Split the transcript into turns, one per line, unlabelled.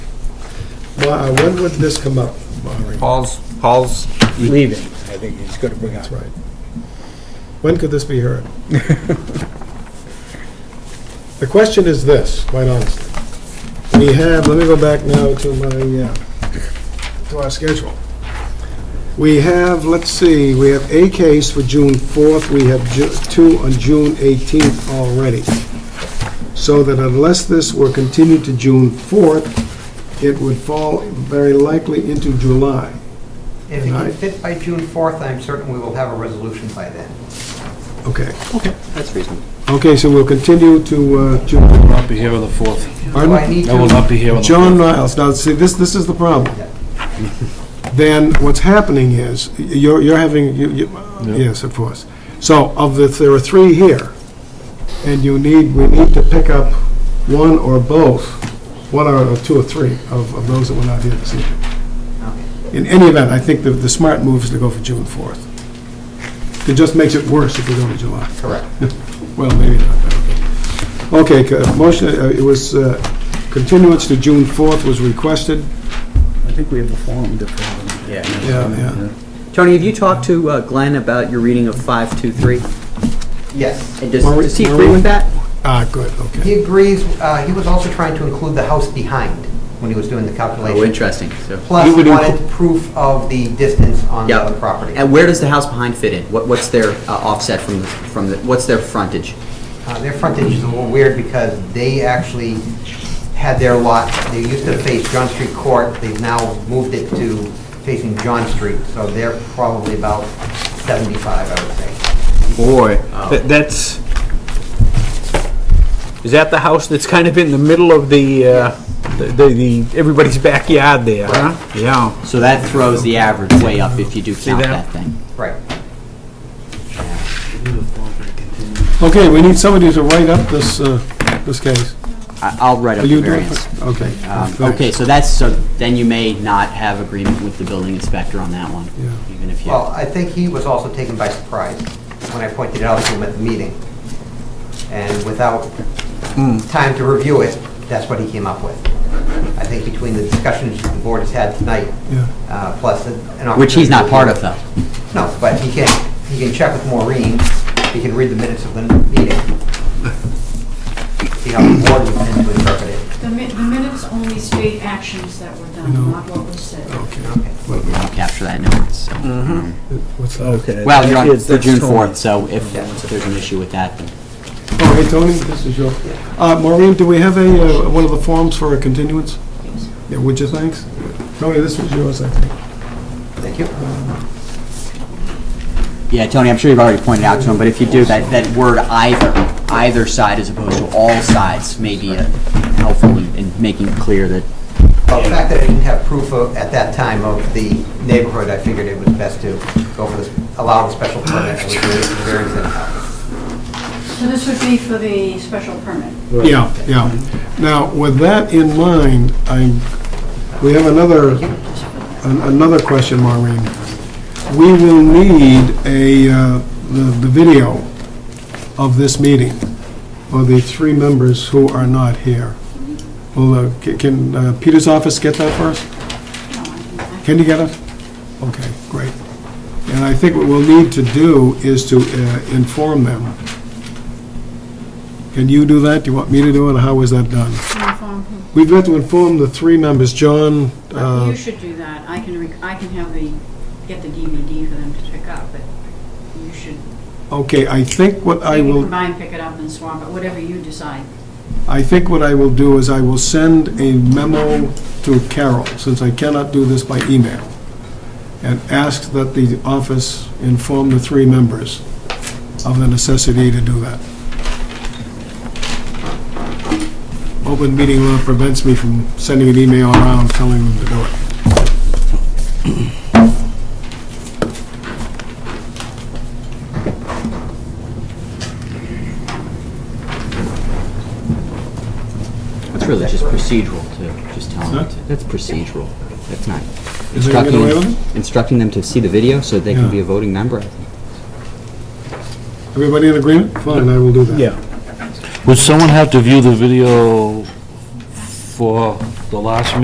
Ma- uh, When would this come up, Maureen?
Paul's, Paul's
leaving. I think he's going to bring up.
That's right. When could this be heard? The question is this, quite honestly. We have, let me go back now to my, uh, to our schedule. We have, let's see, we have a case for June 4th, we have ju- two on June 18th already. So that unless this were continued to June 4th, it would fall very likely into July.
If it can
Right.
fit by June 4th, I'm certain we will have a resolution by then.
Okay.
That's reasonable.
Okay, so we'll continue to uh, June
Not be here on the 4th.
Do I
Pardon?
need
I will not
to,
be here on the 4th.
John Niles, now, see, this, this is the problem.
Yeah.
Then what's happening is, you're, you're having, you, you, yes, of course. So of the, there are three here, and you need, we need to pick up one or both, one or or two or three of, of those that were not here this evening. In any event, I think the, the smart move is to go for June 4th. It just makes it worse if we go to July.
correct.
Well, maybe not, but okay. Okay, c- motion, uh, it was, uh, continuance to June 4th was requested.
I think we have a form different.
Yeah.
Yeah, yeah.
Tony, have you talked to uh, Glenn about your reading of 523?
Yes.
And does,
Maureen-
does he agree
Maureen?
with that?
Ah, good, okay.
He agrees, uh, he was also trying to include the house behind when he was doing the
Oh,
calculation.
interesting, so,
Plus
He would
wanted proof of the distance on the
yeah.
other property.
And where does the house behind fit in? What, what's their uh, offset from, the- from, the? what's their frontage?
Uh, Their frontage is a little weird because they actually had their lot, they used to face John Street Court, they've now moved it to facing John Street, so they're probably about 75, I would say.
Boy, that- that's, is that the house that's kind of in the middle of the, uh, the, the, the- everybody's backyard there, huh? Yeah.
So that throws the average way up if you do count
that?
that thing.
Right.
Okay, we need somebody to write up this, uh, this case.
I- I'll write
Are
up the
you doing?
variance.
Okay.
Um,
thanks.
Okay, so that's, so then you may not have agreement with the building inspector on that one,
Yeah.
even if you,
Well, I think he was also taken by surprise when I pointed it out to him at the meeting. And without
Hmm.
time to review it, that's what he came up with. I think between the discussions the board has had tonight,
Yeah.
uh, plus an opportunity...
which he's not part of though.
No, but he can, he can check with Maureen, he can read the minutes of the meeting. See how the board would tend to interpret it.
The mi- the minutes only state actions that were done, not what was said.
Okay.
I'll capture that in notes, so.
Mm.
What's that?
Well, you're on for June 4th, so if there's an issue with that, then.
Oh, hey, Tony, this is your, uh, Maureen, do we have a, uh, one of the forms for a continuance? Yeah, would you, thanks? Tony, this was yours, I think.
Thank you.
Yeah, Tony, I'm sure you've already pointed out to him, but if you do, that, that word either, either side as opposed to all sides may be uh, helpful in, in making clear that,
Well, the fact that I didn't have proof of, at that time, of the neighborhood, I figured it was best to go for this, allow the special permit and leave the variance anyhow.
So this would be for the special permit.
Yeah, yeah. Now, with that in mind, I, we have another, an- another question, Maureen. We will need a, uh, the the video of this meeting for the three members who are not here. Will, uh, ca- can uh, Peter's office get that for us?
No, I can- I can-
Can you get it? Okay, great. And I think what we'll need to do is to uh, inform them. Can you do that? Do you want me to do it, or how was that done?
inform who-
We've got to inform the three members, John, uh,
You should do that. I can, rec- I can have the, get the DVD for them to pick up, but you should,
okay, I think what I
you can
will,
combine, pick it up and swap it, whatever you decide.
I think what I will do is I will send a memo to Carol, since I cannot do this by email, and ask that the office inform the three members of the necessity to do that. Open meeting law prevents me from sending an email around telling them to do it.
it's really just procedural to, just tell them
Huh?
to, that's procedural, that's not.
Is there any
instructing
way
them-
with it?
Instructing them to see the video so they
Yeah.
can be a voting member, I think.
Everybody in agreement? Fine, I will do that.
Yeah.
Would someone have to view the video for the last